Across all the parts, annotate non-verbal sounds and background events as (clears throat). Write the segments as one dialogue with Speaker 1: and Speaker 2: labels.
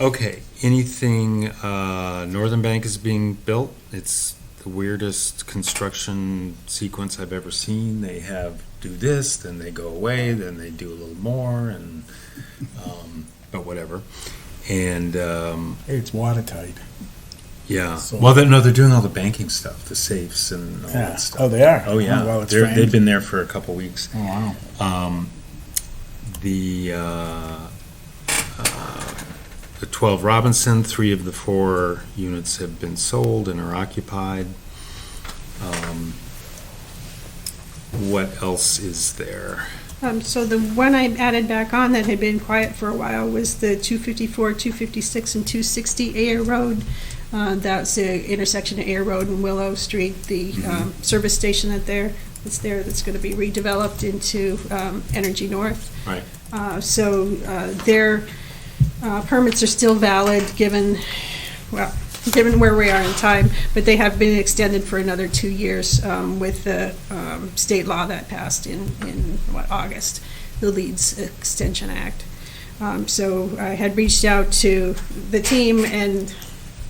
Speaker 1: Okay, anything, uh, Northern Bank is being built. It's the weirdest construction sequence I've ever seen. They have, do this, then they go away, then they do a little more and, um, but whatever. And, um,
Speaker 2: It's watertight.
Speaker 1: yeah,
Speaker 2: So-
Speaker 1: well, they no, they're doing all the banking stuff, the safes and all
Speaker 2: Yeah.
Speaker 1: that stuff.
Speaker 2: Oh, they are?
Speaker 1: Oh, yeah.
Speaker 2: Well, it's
Speaker 1: They're-
Speaker 2: framed.
Speaker 1: They've been there for a couple weeks.
Speaker 2: Oh, wow.
Speaker 1: Um, The, uh, uh, the 12 Robinson, three of the four units have been sold and are occupied. Um, What else is there?
Speaker 3: Um, so the one I added back on that had been quiet for a while was the two fifty-four, two fifty-six, and two sixty Air Road. Uh, that's the intersection of Air Road and Willow Street, the, um, service station that there, that's there, that's gonna be redeveloped into, um, Energy North.
Speaker 1: Right.
Speaker 3: Uh, so, uh, their, uh, permits are still valid, given, well, given where we are in time, but they have been extended for another two years, um, with the, um, state law that passed in, in, what, August, the Leeds Extension Act. Um, so I had reached out to the team and,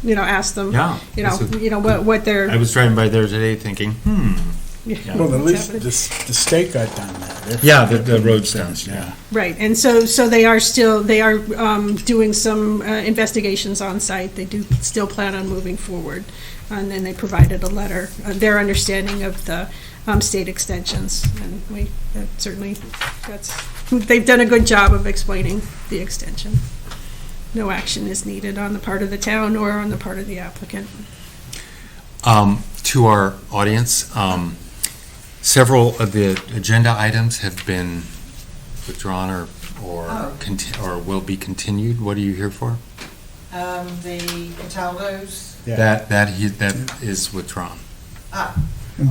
Speaker 3: you know, asked them,
Speaker 1: Yeah.
Speaker 3: you know,
Speaker 1: that's a-
Speaker 3: you know, what, what their.
Speaker 1: I was driving by there today thinking, hmm. Yeah.
Speaker 2: Well, at least the,
Speaker 3: happening.
Speaker 2: the state got done that. They're-
Speaker 1: Yeah, the- the road's done,
Speaker 2: Yeah.
Speaker 3: Right, and so, so they are still, they are um, doing some uh, investigations on site. They do still plan on moving forward. And then they provided a letter, uh, their understanding of the um, state extensions. And we, that certainly, that's, they've done a good job of explaining the extension. No action is needed on the part of the town or on the part of the applicant.
Speaker 1: Um, To our audience, um, several of the agenda items have been withdrawn or, or
Speaker 4: Oh.
Speaker 1: conti- or will be continued. What are you here for?
Speaker 4: Um, the Cataldos,
Speaker 2: Yeah.
Speaker 1: That, that, he- that is withdrawn.
Speaker 4: ah,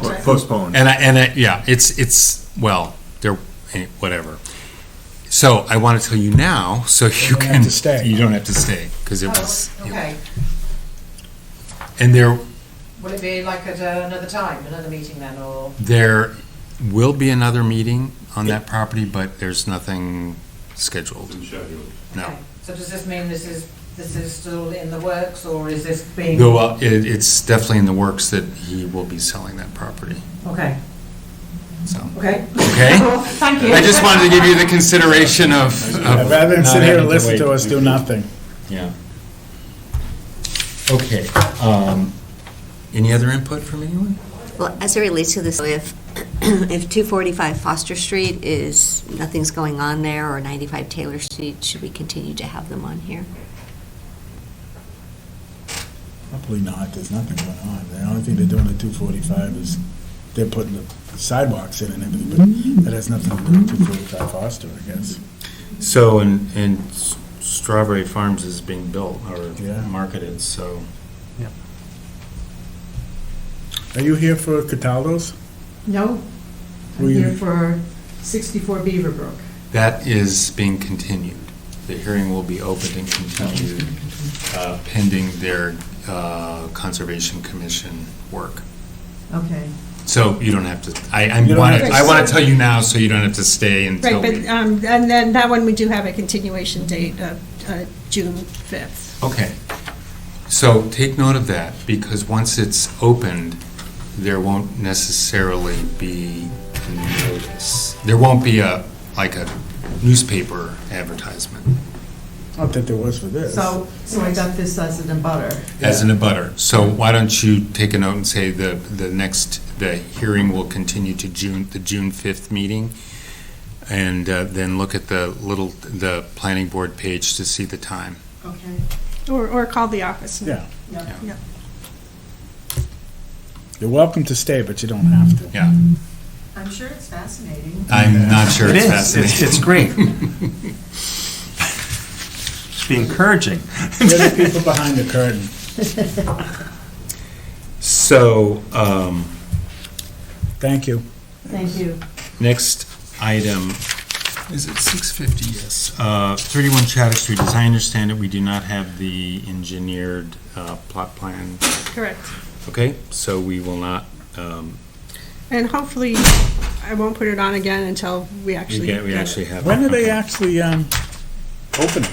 Speaker 5: Or
Speaker 2: Oh,
Speaker 5: Postponed.
Speaker 1: And I, and I, yeah, it's, it's, well, they're, eh, whatever. So I want to tell you now, so you
Speaker 2: don't
Speaker 1: can.
Speaker 2: have to stay.
Speaker 1: You don't have to stay, because it was.
Speaker 4: oh, okay.
Speaker 1: And there,
Speaker 4: Will it be like at uh, another time, another meeting then, or?
Speaker 1: there will be another meeting on that property, but there's nothing scheduled. No.
Speaker 4: okay. So does this mean this is, this is still in the works, or is this being?
Speaker 1: Though, uh, it, it's definitely in the works that he will be selling that property,
Speaker 4: Okay,
Speaker 1: so,
Speaker 4: okay.
Speaker 1: okay?
Speaker 4: Thank you.
Speaker 1: I just wanted to give you the consideration of. of
Speaker 2: Yeah, Rather than
Speaker 1: not
Speaker 2: sit here
Speaker 1: having
Speaker 2: and listen Uh, to
Speaker 1: wait.
Speaker 2: us do nothing.
Speaker 1: Yeah. Okay, um, any other input from anyone?
Speaker 6: Well, as it relates to this, if, (clears throat) if 245 Foster Street is, nothing's going on there, or 95 Taylor Street, should we continue to have them on here?
Speaker 2: Probably not, there's nothing going on. The only thing they're doing at 245 is they're putting the sidewalks in and everything, but that has nothing to do with 245 Foster, I guess.
Speaker 1: So, and, and S- Strawberry Farms is being built or
Speaker 2: Yeah.
Speaker 1: marketed, so.
Speaker 2: Are you here for Cataldo's?
Speaker 4: No,
Speaker 2: Were
Speaker 4: I'm
Speaker 2: you-
Speaker 4: here for sixty-four Beaverbrook.
Speaker 1: That is being continued. The hearing will be opened and continued uh, pending their uh, Conservation Commission work.
Speaker 4: Okay.
Speaker 1: So you don't have to, I, I
Speaker 2: You don't
Speaker 1: want
Speaker 2: have
Speaker 1: to,
Speaker 2: to
Speaker 1: I want to
Speaker 3: stay.
Speaker 1: tell you now so you don't have to stay
Speaker 3: Right,
Speaker 1: until
Speaker 3: but,
Speaker 1: we.
Speaker 3: um, and then that one, we do have a continuation date of uh, June 5th.
Speaker 1: Okay. So take note of that because once it's opened, there won't necessarily be notice. There won't be a, like a newspaper advertisement.
Speaker 2: I don't think there was for this.
Speaker 4: So, so I got this as an abutter.
Speaker 1: as an abutter. So why don't you take a note and say the, the next, the hearing will continue to June, the June 5th meeting? And uh, then look at the little, the planning board page to see the time.
Speaker 4: Okay.
Speaker 3: Or, or call the office.
Speaker 2: Yeah,
Speaker 3: Yeah.
Speaker 2: you're welcome to stay, but you don't have to.
Speaker 1: Yeah,
Speaker 4: I'm sure it's fascinating.
Speaker 1: I'm not sure
Speaker 5: It
Speaker 1: it's
Speaker 5: is, it's,
Speaker 1: fascinating.
Speaker 5: it's
Speaker 1: (laughs)
Speaker 5: great. Be encouraging.
Speaker 2: We're the people behind the curtain.
Speaker 1: So, um,
Speaker 2: Thank you.
Speaker 4: Thank you.
Speaker 1: Next item, is it 650? Yes. Uh, 31 Chatter Street, as I understand it, we do not have the engineered uh, plot plan,
Speaker 3: Correct.
Speaker 1: okay? So we will not, um,
Speaker 3: And hopefully, I won't put it on again until we
Speaker 1: we
Speaker 3: actually.
Speaker 1: get- we
Speaker 3: get it.
Speaker 1: actually have.
Speaker 2: When are
Speaker 1: okay.
Speaker 2: they actually um, opening?